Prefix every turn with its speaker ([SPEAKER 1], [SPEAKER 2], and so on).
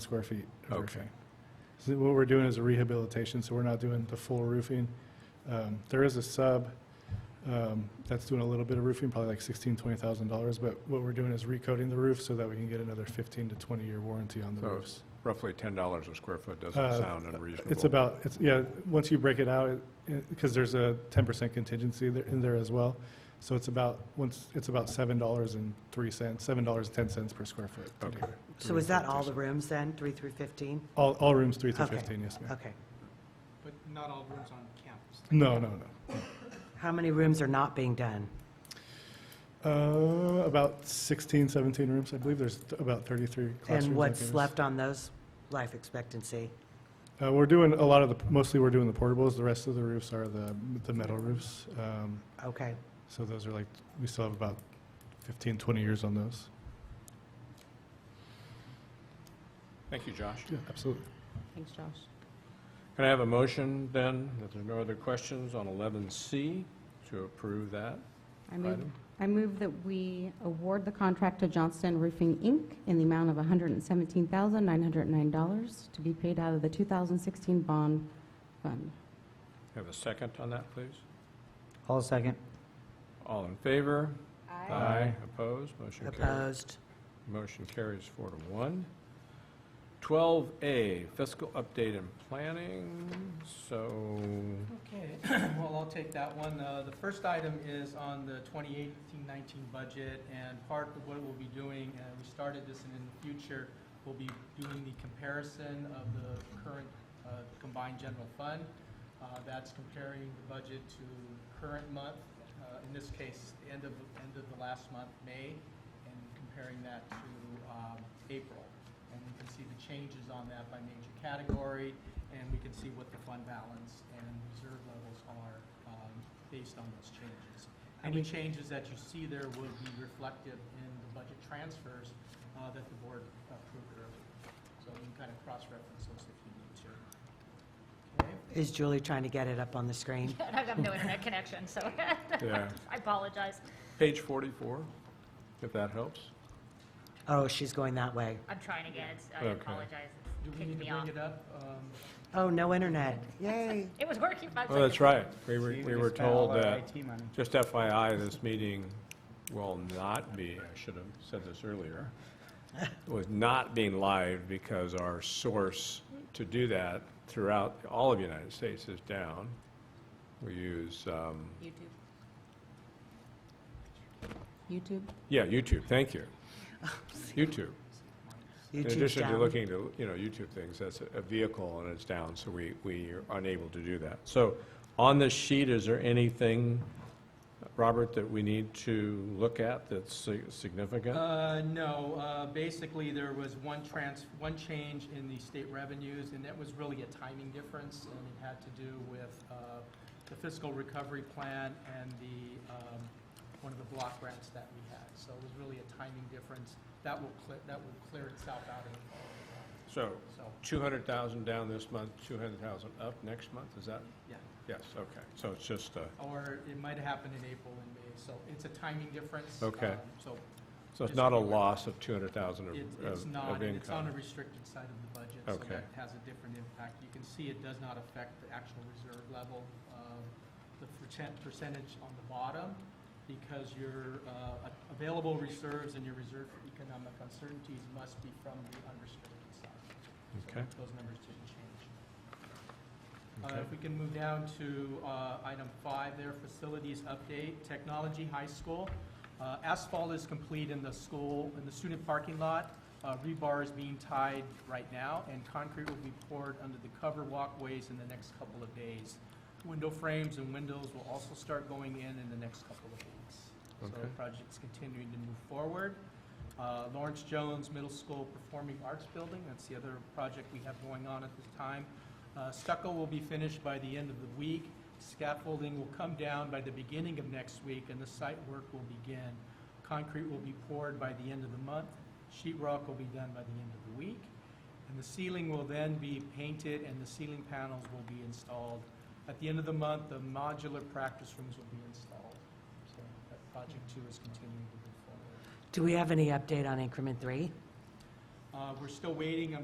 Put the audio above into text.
[SPEAKER 1] square feet of
[SPEAKER 2] Okay.
[SPEAKER 1] roofing. So what we're doing is a rehabilitation, so we're not doing the full roofing. Um, There is a sub um, that's doing a little bit of roofing, probably like $16,000, $20,000, but what we're doing is recoating the roof so that we can get another 15 to 20-year warranty on the
[SPEAKER 2] So
[SPEAKER 1] roofs.
[SPEAKER 2] Roughly $10 a square foot doesn't
[SPEAKER 1] Uh,
[SPEAKER 2] sound unreasonable.
[SPEAKER 1] It's about, it's, yeah, once you break it out, because there's a 10% contingency there- in there as well, so it's about, once, it's about $7.03, $7.10 per square foot. to do.
[SPEAKER 2] Okay.
[SPEAKER 3] So is that all the rooms then, 3 through 15?
[SPEAKER 1] All, all rooms 3 through
[SPEAKER 3] Okay.
[SPEAKER 1] 15, yes, ma'am.
[SPEAKER 3] Okay.
[SPEAKER 4] But not all rooms on campus.
[SPEAKER 1] No, no, no.
[SPEAKER 3] How many rooms are not being done?
[SPEAKER 1] Uh, about 16, 17 rooms, I believe. There's th- about 33 classrooms.
[SPEAKER 3] And
[SPEAKER 1] I
[SPEAKER 3] what's
[SPEAKER 1] guess.
[SPEAKER 3] left on those, life expectancy?
[SPEAKER 1] Uh, we're doing a lot of the, mostly we're doing the portables. The rest of the roofs are the, the metal roofs. Um,
[SPEAKER 3] Okay.
[SPEAKER 1] so those are like, we still have about 15, 20 years on those.
[SPEAKER 2] Thank you, Josh.
[SPEAKER 1] Yeah, absolutely.
[SPEAKER 5] Thanks, Josh.
[SPEAKER 2] Can I have a motion then, if there's no other questions, on 11C to approve that
[SPEAKER 5] I move,
[SPEAKER 2] item?
[SPEAKER 5] I move that we award the contract to Johnston Roofing, Inc. in the amount of $117,909 to be paid out of the 2016 bond fund.
[SPEAKER 2] Have a second on that, please?
[SPEAKER 3] All second.
[SPEAKER 2] All in favor? Opposed? Motion carries.
[SPEAKER 3] Opposed?
[SPEAKER 2] Motion carries four to one. 12A, fiscal update and planning, so,
[SPEAKER 4] Okay, well, I'll take that one. Uh, The first item is on the 2018-19 budget, and part of what we'll be doing, and we started this, and in the future, we'll be doing the comparison of the current uh, combined general fund. Uh, That's comparing the budget to current month, uh, in this case, the end of, end of the last month, May, and comparing that to um, April. And you can see the changes on that by major category, and we can see what the fund balance and reserve levels are um, based on those changes.
[SPEAKER 3] And
[SPEAKER 4] Any
[SPEAKER 3] we-
[SPEAKER 4] changes that you see there will be reflective in the budget transfers uh, that the board approved earlier. So you can kind of cross-reference those if you need to. Okay?
[SPEAKER 3] Is Julie trying to get it up on the screen?
[SPEAKER 6] I have no internet connection, so
[SPEAKER 2] yeah.
[SPEAKER 6] I apologize.
[SPEAKER 2] Page 44, if that helps.
[SPEAKER 3] Oh, she's going that way.
[SPEAKER 6] I'm trying again. It's- I
[SPEAKER 2] Okay.
[SPEAKER 6] apologize.
[SPEAKER 4] Do
[SPEAKER 6] It's
[SPEAKER 4] we
[SPEAKER 6] kicking
[SPEAKER 4] need to
[SPEAKER 6] me
[SPEAKER 4] bring
[SPEAKER 6] off.
[SPEAKER 4] it up? Um,
[SPEAKER 3] Oh, no internet. Yay.
[SPEAKER 6] It was working five seconds.
[SPEAKER 2] Oh, that's right. We were,
[SPEAKER 4] See,
[SPEAKER 2] we
[SPEAKER 4] just
[SPEAKER 2] were
[SPEAKER 4] spent all
[SPEAKER 2] told
[SPEAKER 4] our
[SPEAKER 2] that,
[SPEAKER 4] IT money.
[SPEAKER 2] just FYI, this meeting will not be, I should have said this earlier, was not being live because our source to do that throughout all of the United States is down. We use, um,
[SPEAKER 5] YouTube. YouTube? Oh,
[SPEAKER 2] yeah, YouTube, thank you. YouTube. In
[SPEAKER 3] YouTube's
[SPEAKER 2] addition to
[SPEAKER 3] down.
[SPEAKER 2] looking to, you know, YouTube things, that's a- a vehicle and it's down, so we, we are unable to do that. So on this sheet, is there anything, Robert, that we need to look at that's si- significant?
[SPEAKER 4] Uh, no, uh, basically, there was one trans, one change in the state revenues, and that was really a timing difference, and it had to do with uh, the fiscal recovery plan and the, um, one of the block grants that we had. So it was really a timing difference. That will, cle- that will clear itself out in the
[SPEAKER 2] So
[SPEAKER 4] fall, so,
[SPEAKER 2] 200,000 down this month, 200,000 up next month, is that?
[SPEAKER 4] yeah.
[SPEAKER 2] Yes, okay. So it's just, uh,
[SPEAKER 4] Or it might have happened in April and May, so it's a timing difference.
[SPEAKER 2] Okay.
[SPEAKER 4] um, So
[SPEAKER 2] so it's
[SPEAKER 4] Just
[SPEAKER 2] not a
[SPEAKER 4] be aware.
[SPEAKER 2] loss of 200,000 of-
[SPEAKER 4] It- It's
[SPEAKER 2] of
[SPEAKER 4] not,
[SPEAKER 2] of
[SPEAKER 4] and it's on the
[SPEAKER 2] income?
[SPEAKER 4] restricted side of the budget, so
[SPEAKER 2] Okay.
[SPEAKER 4] that has a different impact. You can see it does not affect the actual reserve level. um, The percent, percentage on the bottom, because your uh, a- available reserves and your reserve for economic uncertainties must be from the unrestricted side. So
[SPEAKER 2] Okay.
[SPEAKER 4] Those numbers didn't change. Uh,
[SPEAKER 2] Okay.
[SPEAKER 4] If we can move down to uh, item five there, facilities update, technology high school. Uh, Asphalt is complete in the school, in the student parking lot. Uh, Rebar is being tied right now, and concrete will be poured under the cover walkways in the next couple of days. Window frames and windows will also start going in in the next couple of weeks. So the
[SPEAKER 2] Okay.
[SPEAKER 4] project's continuing to move forward. Uh, Lawrence Jones Middle School Performing Arts Building, that's the other project we have going on at this time. Uh, Stucco will be finished by the end of the week. Scaffolding will come down by the beginning of next week, and the site work will begin. Concrete will be poured by the end of the month. Sheet rock will be done by the end of the week. And the ceiling will then be painted, and the ceiling panels will be installed. At the end of the month, the modular practice rooms will be installed. So that project two is continuing to move forward.
[SPEAKER 3] Do we have any update on increment three?
[SPEAKER 4] Uh, We're still waiting,